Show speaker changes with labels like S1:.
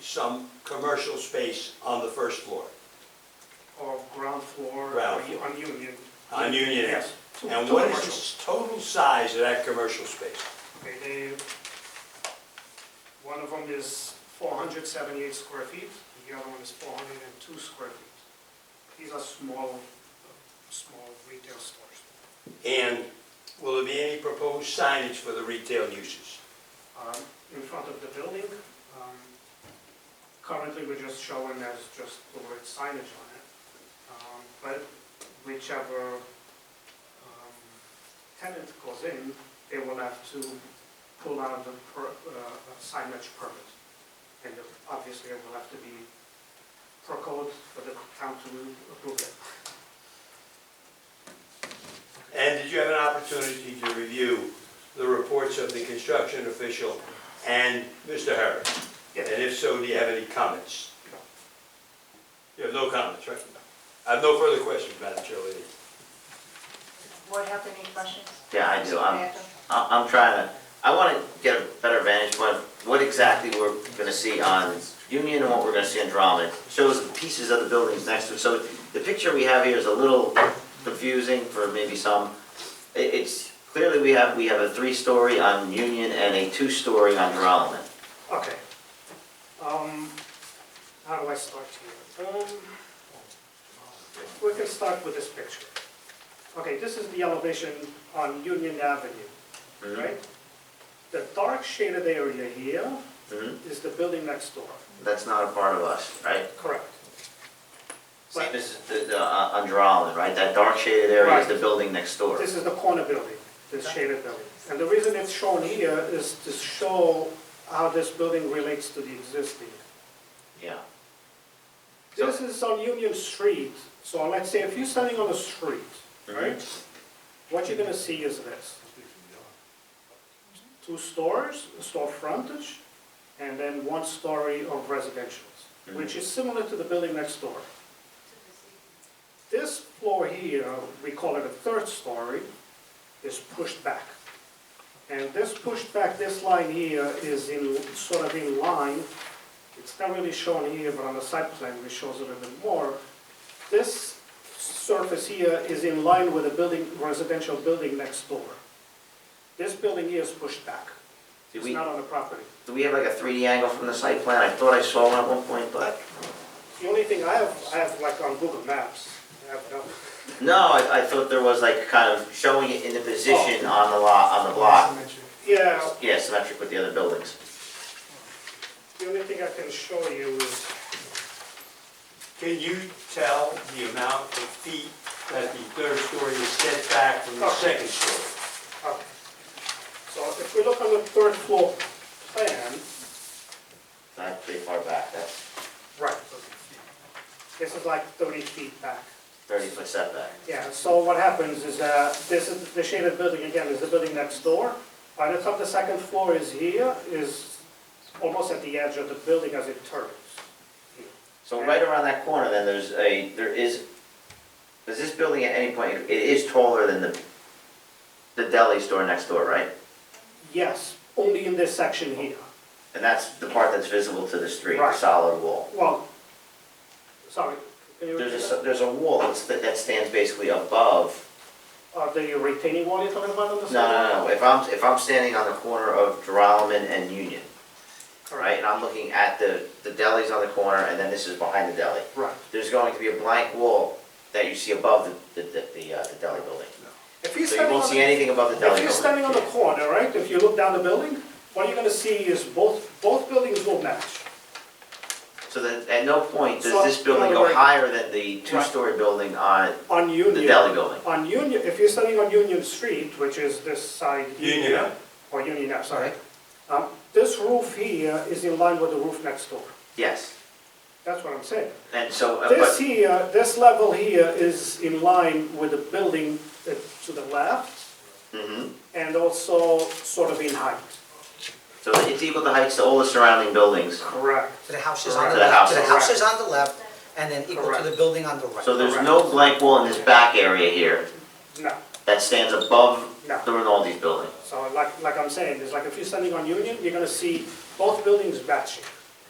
S1: some commercial space on the first floor,
S2: or ground floor?
S1: Ground
S2: or u- On Union?
S1: on Union Ave.
S2: Yes.
S1: And
S2: Two
S1: what is
S2: commercial.
S1: the total size of that commercial space?
S2: Okay, they, one of them is 478 square feet, the other one is 402 square feet. These are small, small retail stores.
S1: And will there be any proposed signage for the retail uses?
S2: Um, In front of the building, um, currently we're just showing as just the word signage on it. Um, But whichever um, tenant goes in, they will have to pull out the per- uh, signage permit. And obviously it will have to be per code for the town to approve it.
S1: And did you have an opportunity to review the reports of the construction official and Mr. Harris?
S2: Yeah,
S1: And if so, do you have any comments?
S2: No.
S1: You have no comments, right? I have no further questions, Madam Chair. Lady.
S3: Board have any questions?
S4: Yeah, I do. I'm,
S3: Samantha?
S4: I- I'm trying to, I want to get a better vantage point of what exactly we're going to see on Union and what we're going to see on Drummond. It Shows the pieces of the buildings next to it. So the picture we have here is a little confusing for maybe some. I- It's, clearly we have, we have a three-story on Union and a two-story on Drummond.
S2: okay. Um, How do I start here? Um, We can start with this picture. Okay, this is the elevation on Union Avenue,
S4: Mhm.
S2: right? The dark shaded area here
S4: Mhm.
S2: is the building next door.
S4: That's not a part of us, right?
S2: Correct.
S4: Same as the, the, uh, on Drummond, right? That dark shaded area is
S2: Right.
S4: the building next door.
S2: This is the corner building, this shaded building. And the reason it's shown here is to show how this building relates to the existing.
S4: Yeah. So-
S2: This is on Union Street, so let's say if you're standing on the street, right? What you're gonna see is this. Two stores, a store frontage, and then one story of residential's, which is similar to the building next door. This floor here, we call it a third story, is pushed back. And this pushed back, this line here is in, sort of in line, it's not really shown here, but on the site plan, it shows a little bit more. This surface here is in line with the building, residential building next door. This building here is pushed back.
S4: Did
S2: It's
S4: we-
S2: not on the property.
S4: Do we have like a 3D angle from the site plan? I thought I saw one at one point, but.
S2: The only thing I have, I have like on Google Maps, I have no,
S4: No, I, I thought there was like kind of showing it in the position on the lot, on the block.
S2: yeah,
S4: Yeah, symmetric with the other buildings.
S2: the only thing I can show you is,
S1: Can you tell the amount of feet that the third story is set back from the second story?
S2: okay. So if we look on the third floor plan,
S4: Not pretty far back, that's
S2: right, this is like thirty feet back.
S4: thirty foot setback.
S2: Yeah, so what happens is, uh, this is, the shaded building again is the building next door. By the time the second floor is here, is almost at the edge of the building as it turns.
S4: So right around that corner, then there's a, there is, is this building at any point, it is taller than the, the deli store next door, right?
S2: Yes, only in this section here.
S4: And that's the part that's visible to the street, the
S2: Right.
S4: solid wall.
S2: Well, sorry, can you
S4: There's a,
S2: repeat
S4: s-
S2: that?
S4: there's a wall that's, that stands basically above
S2: Uh, the retaining wall you're talking about on the side?
S4: No, no, no, if I'm, if I'm standing on the corner of Droman and Union, right, and I'm looking at the, the deli's on the corner, and then this is behind the deli,
S2: Right.
S4: there's going to be a blank wall that you see above the, the, the, uh, the deli building.
S2: If you're
S4: So you
S2: standing
S4: won't
S2: on,
S4: see
S2: the-
S4: anything above the deli
S2: if you're
S4: building.
S2: standing on the corner, right, if you look down the building, what you're gonna see is both, both buildings will match.
S4: So that, at no point
S2: So-
S4: does this building go
S2: Right.
S4: higher than the two-story building on
S2: On Union.
S4: the deli building.
S2: On Union, if you're standing on Union Street, which is this side.
S1: Union Ave.
S2: Or Union Ave, sorry. Um, This roof here is in line with the roof next door.
S4: Yes,
S2: That's what I'm saying.
S4: and so, uh,
S2: This
S4: but,
S2: here, this level here is in line with the building uh, to the left
S4: mhm.
S2: and also sort of in height.
S4: so it's equal to heights to all the surrounding buildings.
S2: Correct.
S5: So the house is on
S4: Correct. To
S5: the
S4: the house.
S5: left, so the house is on the left, and then equal to the
S2: Correct.
S5: building on the right.
S4: So there's no blank wall in this back area here
S2: No,
S4: that stands above
S2: No.
S4: the Rinaldi's building.
S2: so like, like I'm saying, it's like if you're standing on Union, you're gonna see both buildings matching.